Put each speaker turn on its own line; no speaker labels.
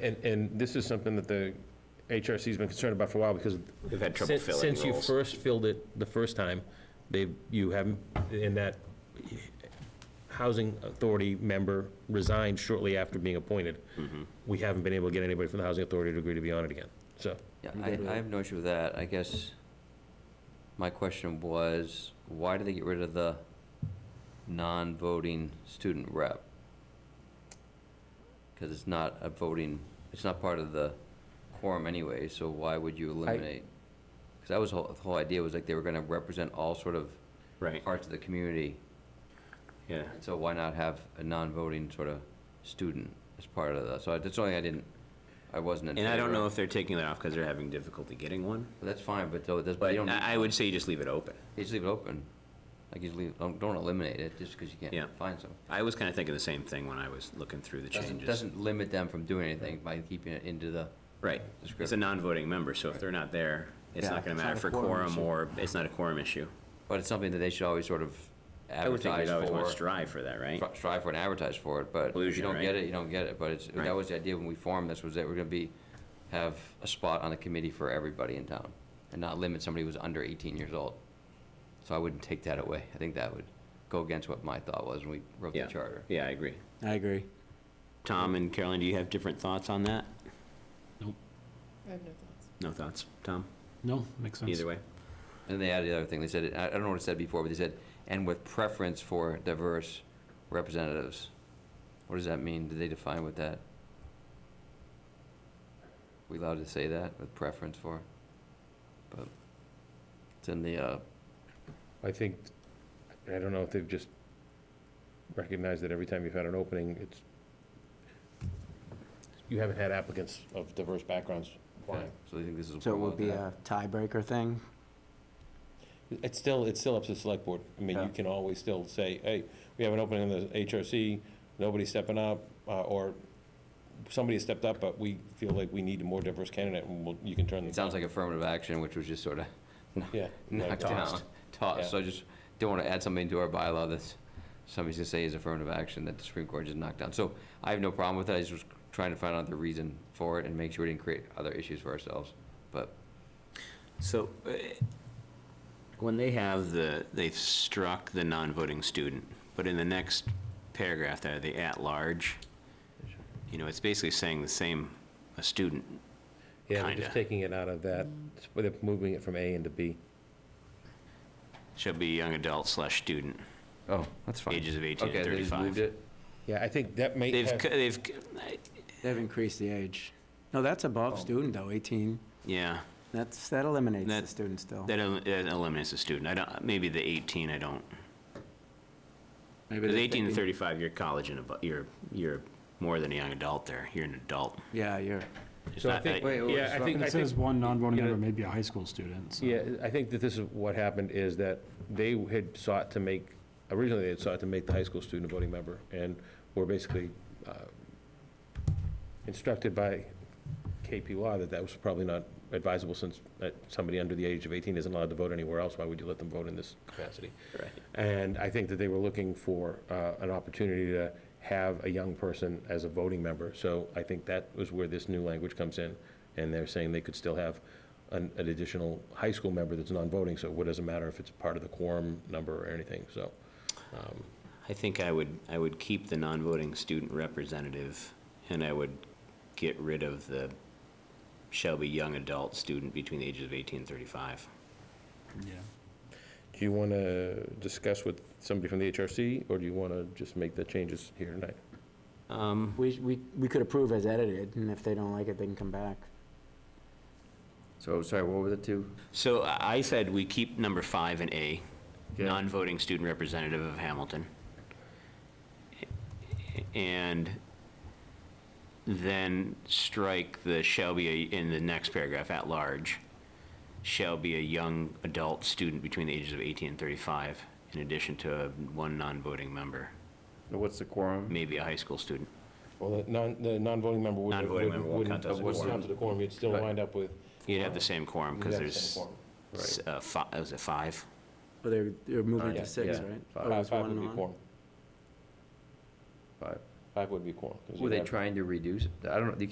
And, and this is something that the HRC's been concerned about for a while, because
We've had trouble
since,
filling
since you
roles.
first filled it the first time, they, you haven't, and that housing authority member resigned shortly after being appointed.
Mm-hmm.
We haven't been able to get anybody from the housing authority to agree to be on it again, so.
Yeah,
I'm
I,
good with
I
it.
have no issue with that. I guess my question was, why did they get rid of the non-voting student rep? Because it's not a voting, it's not part of the quorum anyway, so why would you eliminate? Because that was, whole- the whole idea was like they were going to represent all sort of
Right,
parts of the community.
yeah.
So why not have a non-voting sort of student as part of that? So I- that's the only thing I didn't, I wasn't in
And I don't
favor of.
know if they're taking that off because they're having difficulty getting one,
But That's fine, but though, it doesn't, you
but
don't.
I I would say you just leave it open.
You just leave it open. Like you just leave, don't, don't eliminate it just because you
Yeah.
can't find some.
I was kind of thinking the same thing when I was looking through the
Doesn't,
changes.
doesn't limit them from doing anything by keeping it into the,
Right, it's a
Description.
non-voting member, so if they're not there, it's
Yeah,
not going
it's
to
not
matter for
a
quorum
quorum issue.
or, it's not a quorum issue.
but it's something that they should always sort of
I would think
advertise
we'd always want to
for.
strive for that, right?
stri- Strive for and advertise for it, but if you
Inclusion,
don't get
right?
it, you don't get it. But it's,
Right.
that was the idea when we formed this, was that we're gonna be, have a spot on the committee for everybody in town and not limit somebody who's under eighteen years old. So I wouldn't take that away. I think that would go against what my thought was when we wrote the
Yeah,
charter.
yeah, I agree.
I agree.
Tom and Carolyn, do you have different thoughts on that?
I have no thoughts.
No thoughts, Tom?
No, makes sense.
Either way?
And they added the other thing, they said, I I don't know what it said before, but they said, and with preference for diverse representatives. What does that mean? Did they define what that? We allowed to say that, with preference for? But it's in the, uh,
I think, I don't know if they've just recognized that every time you've had an opening, it's, you haven't had applicants of diverse backgrounds applying.
so they think this is.
So it would be
that.
a tiebreaker thing?
It's still, it's still up to the select board. I mean, you
Yeah.
can always still say, hey, we have an opening in the HRC, nobody's stepping up, uh, or somebody stepped up, but we feel like we need a more diverse candidate, and we'll- you can turn them
It
down.
sounds like affirmative action, which was just sort of
Yeah. no,
knocked down,
tossed. Yeah.
tossed. So I just don't want to add something to our bylaw that's, somebody's gonna say is affirmative action that the Supreme Court just knocked down. So I have no problem with that. I just was trying to find out the reason for it and make sure we didn't create other issues for ourselves. But
So, uh, when they have the, they've struck the non-voting student, but in the next paragraph there, the at-large, you know, it's basically saying the same, a student,
Yeah, they're just
kinda.
taking it out of that, they're moving it from A into B.
shall be young adult slash student,
Oh, that's fine.
ages of 18
Okay,
to
they just moved
35.
it.
Yeah, I think that may
They've,
have-
c- they've, c-
They've increased the age. Oh. No, that's above student though, 18.
yeah,
That's, that eliminates the
That-
student still.
that el- that eliminates a student. I don't, maybe the 18, I don't,
Maybe
because
they're
18 to
thinking-
35, you're college and above, you're, you're more than a young adult there, you're an adult.
Yeah, you're,
It's
So I
not-
think-
Wait, wait,
Yeah, I
so-
think,
And
I
it
think
says one non-voting
you know-
member may be a high school student, so.
Yeah, I think that this is what happened, is that they had sought to make, originally they had sought to make the high school student a voting member, and were basically uh, instructed by KP Law that that was probably not advisable, since that somebody under the age of 18 isn't allowed to vote anywhere else, why would you let them vote in this capacity?
Right.
And I think that they were looking for uh, an opportunity to have a young person as a voting member. So I think that was where this new language comes in, and they're saying they could still have an an additional high school member that's non-voting, so what does it matter if it's part of the quorum number or anything, so. um,
I think I would, I would keep the non-voting student representative, and I would get rid of the shall be young adult student between the ages of 18 and 35.
Yeah.
Do you want to discuss with somebody from the HRC, or do you want to just make the changes here tonight?
Um,
we, we, we could approve as edited, and if they don't like it, they can come back.
So, sorry, what were the two?
So I I said we keep number five in A, non-voting student representative of Hamilton. And then strike the shall be, a- in the next paragraph, at large, shall be a young adult student between the ages of 18 and 35, in addition to one non-voting member,
What's the quorum?
maybe a high school student.
Well, the non, the non-voting member would
Non-voting member won't count as a quorum.
to the quorum, you'd still
Right.
wind up with.
You'd have the same quorum,
you'd
because
have the same
there's,
quorum.
s- uh, fi- was it five?
But they're, they're moving
Oh, Yeah,
to six,
yeah.
right?
Five-
Oh, it
Five-
was
Five
one
would be
on.
quorum.
Five.
Five would be quorum. 'cause
Were
you'd
they
have-
trying to reduce? it? I don't know, you